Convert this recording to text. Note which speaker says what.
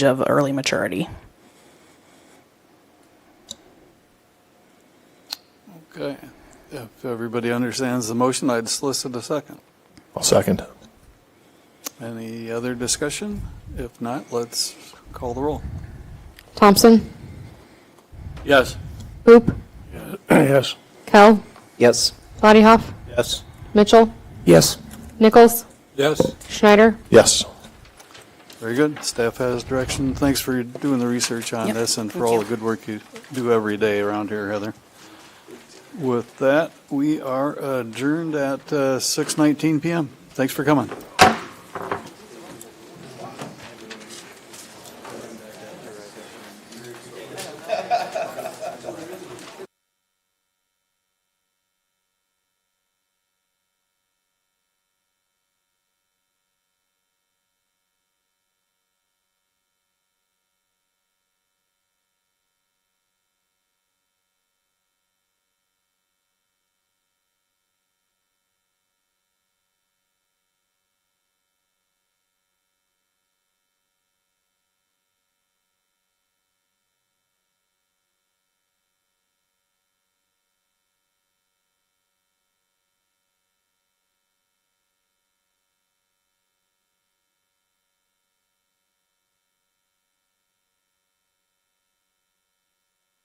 Speaker 1: of early maturity.
Speaker 2: Okay. If everybody understands the motion, I'd solicit a second.
Speaker 3: I'll second.
Speaker 2: Any other discussion? If not, let's call the roll.
Speaker 4: Thompson,
Speaker 2: Yes.
Speaker 4: Hoop,
Speaker 3: Yes.
Speaker 4: Kell,
Speaker 5: Yes.
Speaker 4: Bodyhoff,
Speaker 5: Yes.
Speaker 4: Mitchell,
Speaker 3: Yes.
Speaker 4: Nichols,
Speaker 2: Yes.
Speaker 4: Schneider,
Speaker 3: Yes.
Speaker 2: Very good. Staff has direction. Thanks for doing the research on
Speaker 1: Yep,
Speaker 2: this and for
Speaker 1: thank
Speaker 2: all
Speaker 1: you.
Speaker 2: the good work you do every day around here, Heather. With that, we are adjourned at uh, 6:19 PM. Thanks for coming.